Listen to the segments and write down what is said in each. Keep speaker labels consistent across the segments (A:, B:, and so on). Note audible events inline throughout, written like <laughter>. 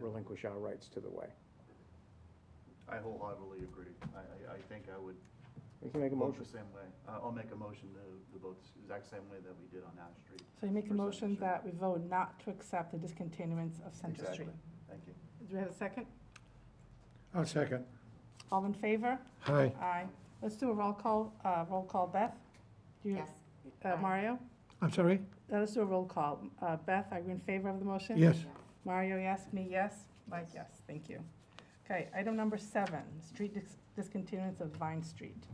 A: relinquish our rights to the way.
B: I wholeheartedly agree. I, I, I think I would
A: We can make a
B: vote
A: motion.
B: the same way. Uh, I'll make a motion to, to vote the exact same way that we did on Ash Street.
C: So you make a
B: For Center
C: motion
B: Street.
C: that we vote not to accept the discontinuance of Center
B: Exactly.
C: Street.
B: Thank you.
C: Do we have a second?
D: I'll second.
C: All in favor?
D: Aye.
C: Aye. Let's do a roll call, uh, roll call. Beth? Do you-
E: Yes.
C: Uh,
E: Aye.
C: Mario?
D: I'm sorry?
C: Uh, Let's do a roll call. Uh, Beth, are you in favor of the motion?
D: Yes.
C: Mario, yes. Me, yes. Mike, yes. Thank you. Okay, item number seven, street dis- discontinuance of Vine Street.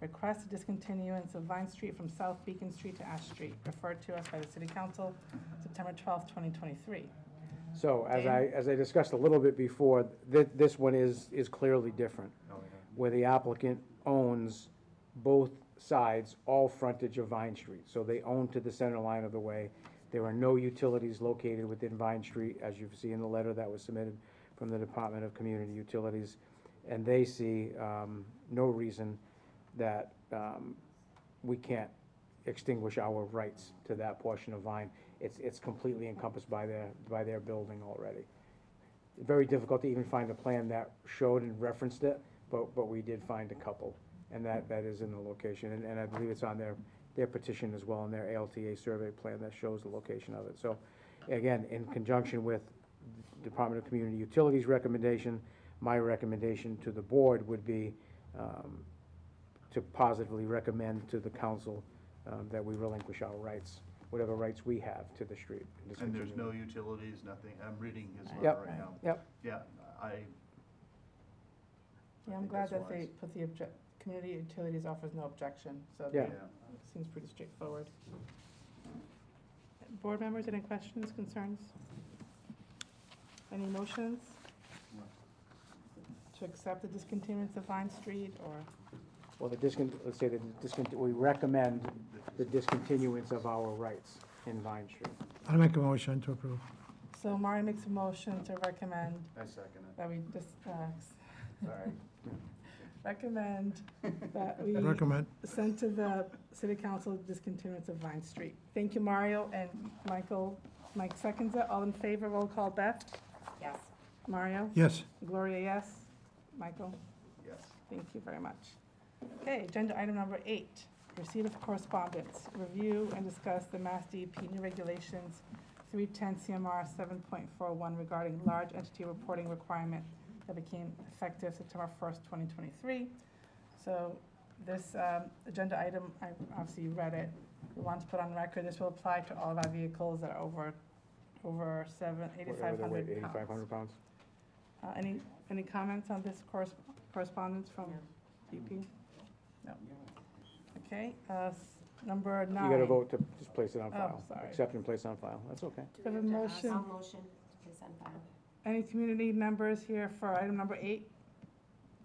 C: Request discontinuance of Vine Street from South Beacon Street to Ash Street, referred to us by the City Council, September twelfth, twenty twenty-three.
A: So as
C: Dan?
A: I, as I discussed a little bit before, thi- this one is, is clearly different,
B: Oh, yeah.
A: where the applicant owns both sides, all frontage of Vine Street. So they own to the center line of the way. There are no utilities located within Vine Street, as you see in the letter that was submitted from the Department of Community Utilities. And they see, um, no reason that, um, we can't extinguish our rights to that portion of Vine. It's, it's completely encompassed by their, by their building already. Very difficult to even find a plan that showed and referenced it, but, but we did find a couple. And that, that is in the location, and, and I believe it's on their, their petition as well, and their ALTA survey plan that shows the location of it. So, again, in conjunction with Department of Community Utilities recommendation, my recommendation to the board would be, um, to positively recommend to the council um, that we relinquish our rights, whatever rights we have to the street.
B: And there's
A: discontinue
B: no
A: it.
B: utilities, nothing. I'm reading his letter
A: Yep.
B: right now.
A: Yep.
B: Yeah, I,
C: Yeah,
B: I
C: I'm
B: think
C: glad
B: that's
C: that they
B: wise.
C: put the object, community utilities offers no objection, so
A: Yeah.
B: yeah,
C: it seems pretty straightforward. Board members, any questions, concerns? Any motions? To accept the discontinuance of Vine Street or?
A: Well, the discon, let's say the discon, we recommend the discontinuance of our rights in Vine Street.
D: I'll make a motion to approve.
C: So Mari makes a motion to recommend
B: I second it.
C: that we just, uh,
B: Sorry.
D: <laughs>
C: recommend
B: <laughs>
C: that we
D: Recommend.
C: send to the city council discontinuance of Vine Street. Thank you, Mario and Michael. Mike seconds it. All in favor, roll call. Beth?
E: Yes.
C: Mario?
D: Yes.
C: Gloria, yes. Michael?
B: Yes.
C: Thank you very much. Okay, agenda item number eight, receipt of correspondence, review and discuss the Mass DEP new regulations, 310 CMR 7.41 regarding large entity reporting requirement that became effective September 1st, 2023. So this um, agenda item, I obviously read it, we want to put on record, this will apply to all of our vehicles that are over, over seven,
A: Whatever the weight,
C: 8,500 pounds.
A: Eighty-five hundred pounds.
C: Uh, Any, any comments on this corres- correspondence from DP? No. Okay, uh, s- number nine.
A: You gotta vote to just place it on
C: Oh,
A: file.
C: sorry.
A: Accept and place on file, that's okay.
C: we have a motion?
E: I'll motion to send file.
C: Any community members here for item number eight?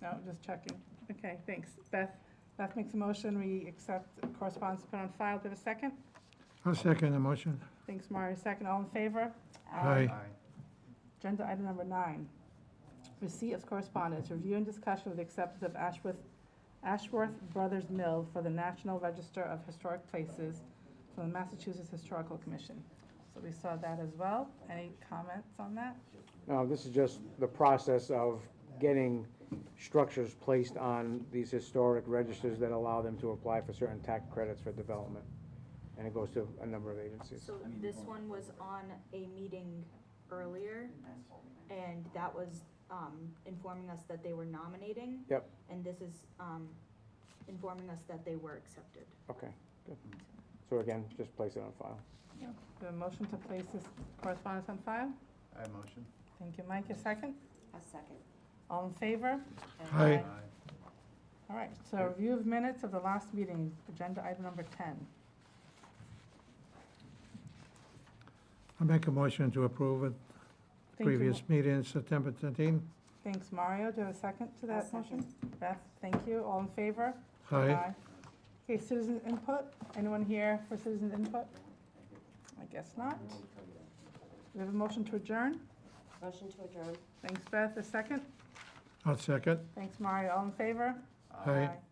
C: No, just checking. Okay, thanks. Beth, Beth makes a motion, we accept correspondence put on file. Do we have a second?
D: I'll second the motion.
C: Thanks, Mario, second. All in favor?
D: Aye.
B: Aye.
C: Agenda item number nine, receipt of correspondence, review and discussion of the acceptance of Ashworth, Ashworth Brothers Mill for the National Register of Historic Places from the Massachusetts Historical Commission. So we saw that as well. Any comments on that?
A: No, this is just the process of getting structures placed on these historic registers that allow them to apply for certain tax credits for development. And it goes to a number of agencies.
F: So this one was on a meeting earlier, and that was, um, informing us that they were nominating.
A: Yep.
F: And this is, um, informing us that they were accepted.
A: Okay, good. So again, just place it on file.
C: The motion to place this correspondence on file?
B: I motion.
C: Thank you, Mike. A second?
E: A second.
C: All in favor?
D: Aye.
C: All right, so review of minutes of the last meeting, agenda item number ten.
D: I'll make a motion to approve it.
C: Thank you,
D: Previous meeting, September 13.
C: Thanks, Mario. Do you have a second to that
E: I'll second.
C: motion? Beth, thank you. All in favor?
D: Aye.
C: Okay, citizen input. Anyone here for citizen input? I guess not. We have a motion to adjourn.
E: Motion to adjourn.
C: Thanks, Beth. A second.
D: I'll second.
C: Thanks, Mario. All in favor?
D: Aye.
C: Aye.